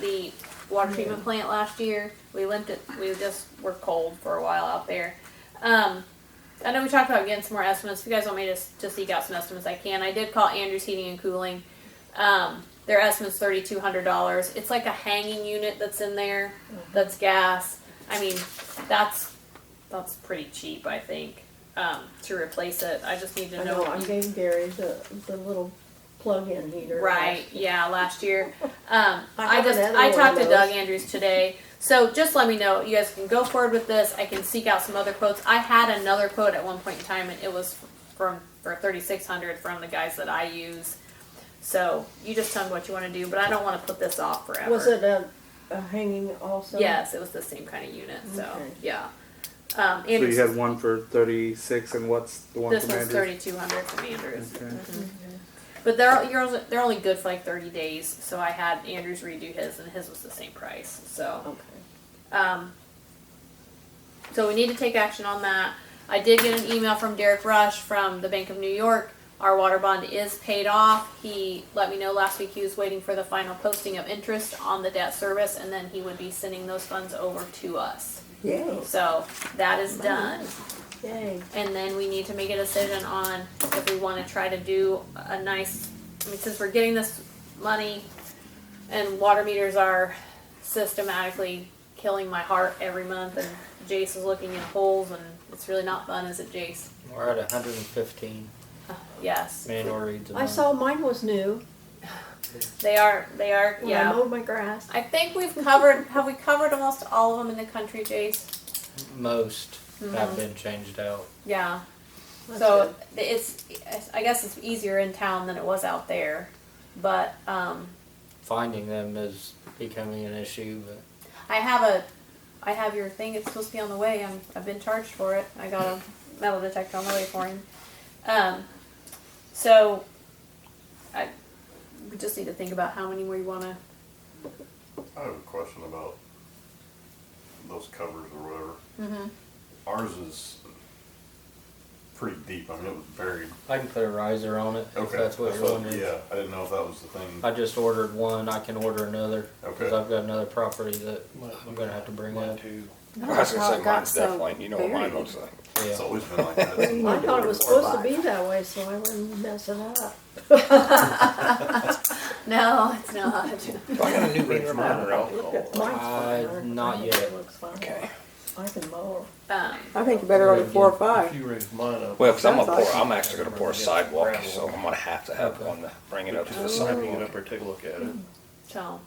the water treatment plant last year. We limped it. We just were cold for a while out there. Um, I know we talked about getting some more estimates. If you guys want me to, to seek out some estimates, I can. I did call Andrews Heating and Cooling. Um, their estimate's thirty two hundred dollars. It's like a hanging unit that's in there. That's gas. I mean, that's that's pretty cheap. I think um, to replace it. I just need to I know. know, I gave Gary the, the little plug-in heater. Right. Yeah. Last year, um, I I, have just another I one talked of to Doug those. Andrews today. So just let me know. You guys can go forward with this. I can seek out some other quotes. I had another quote at one point in time, and it was from for thirty six hundred from the guys that I use. So you just tell me what you want to do, but I don't want to put this off forever. Was it a, a hanging also? Yes, it was the same kind of unit. So Okay. yeah. Um, So Andrews, you had one for thirty-six, and what's the one this from one's Andrews? thirty two hundred from Andrews. Okay. Mm-hmm. But they're you're only, they're only good for like thirty days, so I had Andrews redo his, and his was the same price. So, Okay. um, so we need to take action on that. I did get an email from Derek Rush from the Bank of New York. Our water bond is paid off. He let me know last week he was waiting for the final posting of interest on the debt service, and then he would be sending those funds over to us. Yay. So that is done. Yay. And then we need to make a decision on if we want to try to do a nice, I mean, since we're getting this money and water meters are systematically killing my heart every month and Jace is looking in holes and it's really not fun, is it Jace? We're at 115 Yes. manual reads. a Mm-hmm. I month. saw mine was new They are, they are, when I yeah. mowed my grass. I think we've covered, have we covered almost all of them in the country, Jace? most Mhm. Mm-hmm. have been changed out. Yeah. That's So it's, I guess it's easier in town than it was out there, but, um, Finding them is becoming an issue, but I have a, I have your thing. It's supposed to be on the way. I'm, I've been charged for it. I got a metal detector on the way for him. Um, so, I, we just need to think about how many more you want to. I have a question about those covers or whatever. Mhm. Ours is pretty deep. I mean, it was buried. I can put a riser on it if Okay, that's what you're thought- wondering. Yeah, I didn't know if that was the thing. I just ordered one. I can order another because Okay. I've got another property that I'm gonna have to bring Mine up. too. I was gonna say mine's definitely. You know what mine looks like. It's Yeah. always been like that. good. I thought it was supposed to be that way, so I wouldn't mess it up. No, it's not. Well, I got a new reader monitor out. Look at mine's fine. Uh, I- not I think yet. It looks fine. Okay. I can mow. um, I think you better order four or If five. you raise mine up. Well, because I'm gonna Sounds pour, like- I'm actually gonna pour a sidewalk, so I'm gonna have to have one to bring it up to the Just wrapping it sidewalk. up or take a look at it. so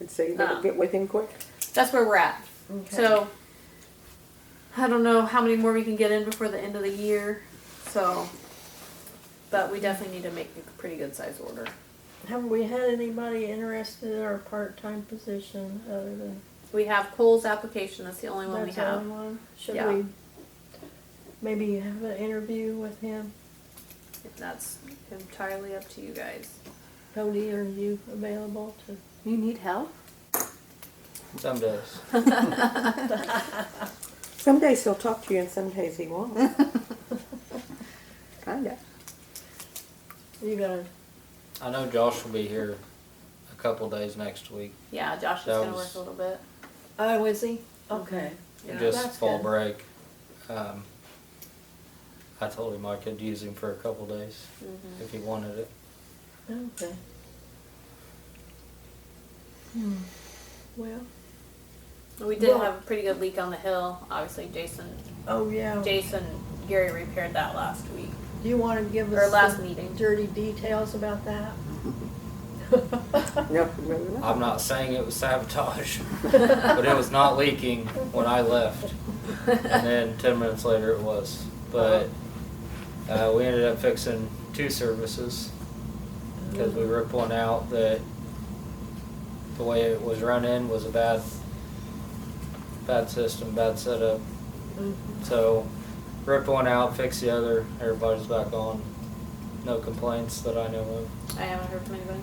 And So you better get with him quick. that's where we're at. Okay. So, I don't know how many more we can get in before the end of the year. So, but we definitely need to make a pretty good size order. Have we had anybody interested in our part-time position other than We have Cole's application. That's the only one that's we the have. only one? Should Yeah. we maybe have an interview with him? That's entirely up to you guys. Cody, are you available to? You need help? Some days. Some days he'll talk to you and some days he won't. Kinda. You gotta I know Josh will be here a couple days next week. Yeah, Josh is That gonna work was- a little bit. Oh, is he? Okay. Yeah. just That's fall good. break. Um, I told him I could use him for a couple days Mm-hmm. if he wanted it. Okay. Hmm. Well, We did Yeah. have a pretty good leak on the hill. Obviously, Jason, oh yeah. Do Jason, Gary repaired that last week you want to give or us last some meeting. dirty details about that? No, really not. I'm not saying it was sabotage, but it was not leaking when I left. And then 10 minutes later it was. But uh, we ended up fixing two services because we ripped one out that the way it was running was a bad, bad system, bad setup. So ripped one out, fixed the other. Everybody's back on. No complaints that I know of. I haven't heard from anybody.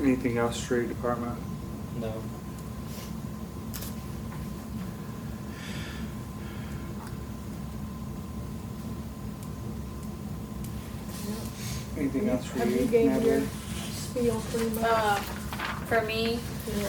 Anything else, street department? No. Anything else for you? Have you gave Natalie? your spiel pretty much? Uh, for me, Yeah.